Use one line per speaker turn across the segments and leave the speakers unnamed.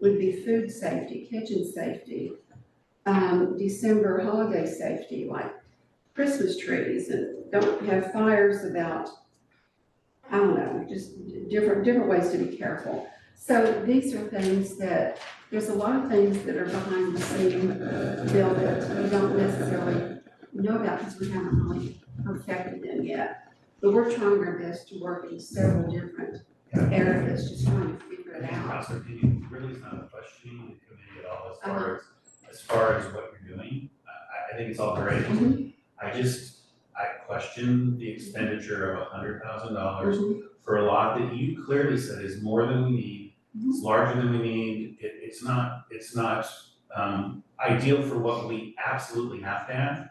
would be food safety, kitchen safety, um, December holiday safety, like Christmas trees and don't have fires about, I don't know, just different, different ways to be careful. So these are things that, there's a lot of things that are behind the scene bill that we don't necessarily know about because we haven't really perfected them yet. But we're trying our best to work in several different areas, just trying to figure it out.
Counselor, do you, really is not questioning the committee at all as far as, as far as what you're doing. I, I- I think it's all great. I just, I question the expenditure of a hundred thousand dollars
Mhm.
for a lot that you clearly said is more than we need. It's larger than we need. It, it's not, it's not, um, ideal for what we absolutely have to have.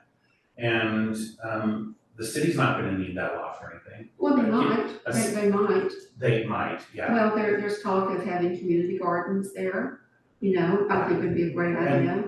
And, um, the city's not gonna need that lot for anything.
Well, they might, they, they might.
They might, yeah.
Well, there, there's talk of having community gardens there, you know, I think would be a great idea.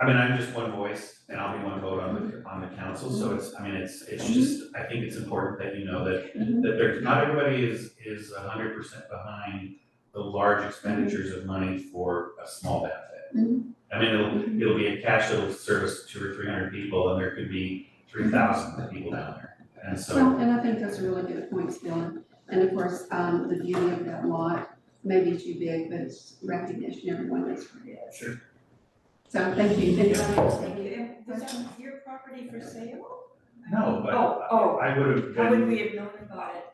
I mean, I'm just one voice and I'll be one vote on the, on the council, so it's, I mean, it's, it's just, I think it's important that you know that,
Mhm.
that there's, not everybody is, is a hundred percent behind the large expenditures of money for a small
Mm-hmm.
benefit. I mean, it'll, it'll be a cash that'll service two or three hundred people and there could be three thousand people down there. And so,
Well, and I think that's a really good point, Dylan. And of course, um, the beauty of that lot, maybe too big, but it's recognition, everyone knows where it is.
Sure.
So thank you, thank
Thank
you.
you. And Was that your property for sale?
no, but
Oh, oh.
I would have
How would
been,
we have known about it?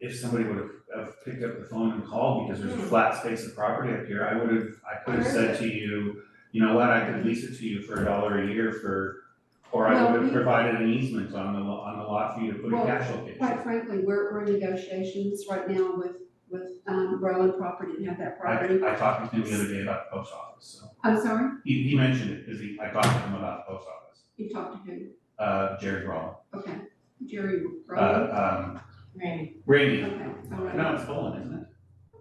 if somebody would have- have picked up the phone and called because
Hmm.
there's a flat space of property up here, I would have, I could have said to you, you know what, I could lease it to you for a dollar a year for, or I would
Well,
have
we-
provided an easement on the, lo- on the lot for you to put a
Well,
cash location.
Quite frankly, we're, we're in negotiations right now with, with, um, Rowan Property, and have that property.
I, I talked to him the other day about the post office, so,
I'm sorry,
he, he mentioned it, because he, I talked to him about the post office,
you talked to who?
uh, Jared Roll,
Okay, Jerry Rowan?
uh, um,
Rainy.
Rainey,
Okay, all right.
no, it's Bolin, isn't it?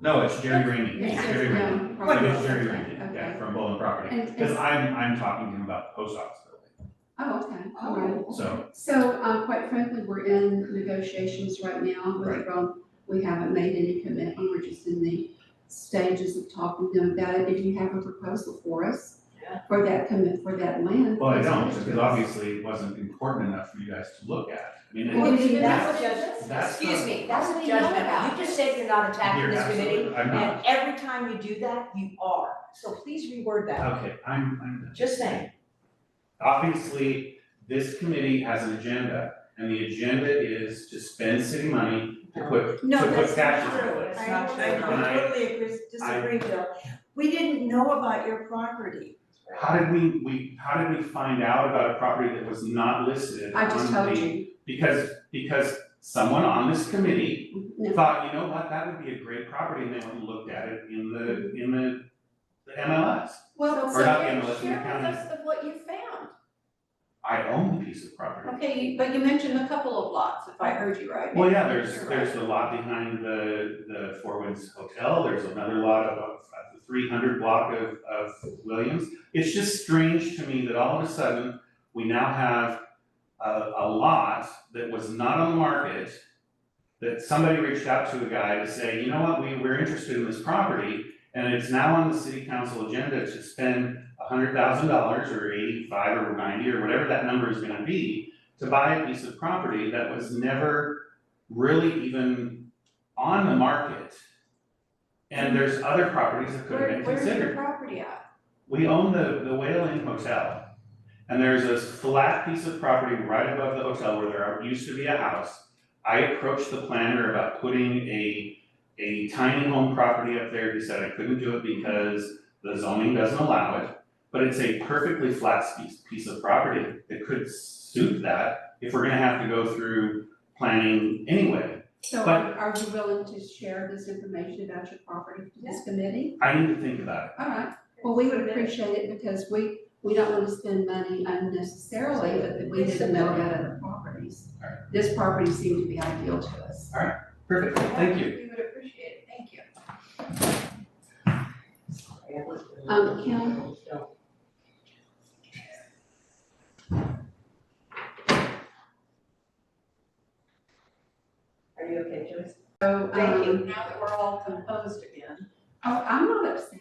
No, it's Jerry Rainey, it's Jerry Rainey.
Yeah,
It
probably.
is Jerry Rainey, yeah,
Um, Okay.
from Bolin Property.
And-
Because
and-
I'm, I'm talking to him about the post office building,
Oh, okay, all right.
Oh.
so,
So, um, quite frankly, we're in negotiations right now with
Right.
Rome. We haven't made any commitment, we're just in the stages of talking to them about it. If you have a proposal for us
Yeah.
for that commit, for that land.
well, I don't,
please
because obviously it wasn't important enough for you guys to look at. I mean,
Well,
it-
we
Excuse me,
did
that's
that.
a judgment.
that's not.
Excuse me, that's
That's
a
what we know
judgment.
about.
You just said you're not attacking
You're
this committee,
absolutely- I'm
and
not,
every time you do that, you are. So please reword that.
okay, I'm, I'm, done.
Just saying.
obviously, this committee has an agenda, and the agenda is to spend city money to put, to put cash in.
No, that's not
the
true.
place.
I,
It's not
I-
true.
I totally agree, disagree, Bill. We didn't know about your property.
How did we, we, how did we find out about a property that was not listed
I just
on
told
the-
you.
Because, because someone on this committee
No,
thought, you know what, that would be a great property, and they went and looked at it in the, in the, the MLS.
Well,
Or
so
not the
share,
MLS, the
share with
county.
us of what you found.
I own the piece of property.
Okay, you- but you mentioned a couple of lots, if I heard you right.
Well, yeah, there's,
You're right.
there's the lot behind the, the Four Winds Hotel, there's another lot of, of the three hundred block of, of Williams. It's just strange to me that all of a sudden, we now have a, a lot that was not on the market, that somebody reached out to a guy to say, you know what, we, we're interested in this property, and it's now on the city council agenda to spend hundred thousand dollars or eighty-five or ninety or whatever that number is gonna be to buy a piece of property that was never really even on the market. And there's other properties that could have
Where,
been
where's your
considered.
property at?
We own the, the Whale Inn Hotel. And there's this flat piece of property right above the hotel where there are- used to be a house. I approached the planner about putting a, a tiny home property up there. He said I couldn't do it because the zoning doesn't allow it. But it's a perfectly flat piece, piece of property that could suit that if we're gonna have to go through planning anyway.
So are, are you willing to share this information about your property to this committee?
I need to think about it.
All right, well, we would appreciate it because we, we don't want to spend money unnecessarily, but that we didn't know about other properties.
All right.
This property seemed to be ideal to us.
Perfect, thank you.
We would appreciate it, thank you.
Um, Kim?
Are you okay, Joyce?
So,
Thank you, Oh,
um, um,
now that we're all composed again.
Oh, I'm not upset.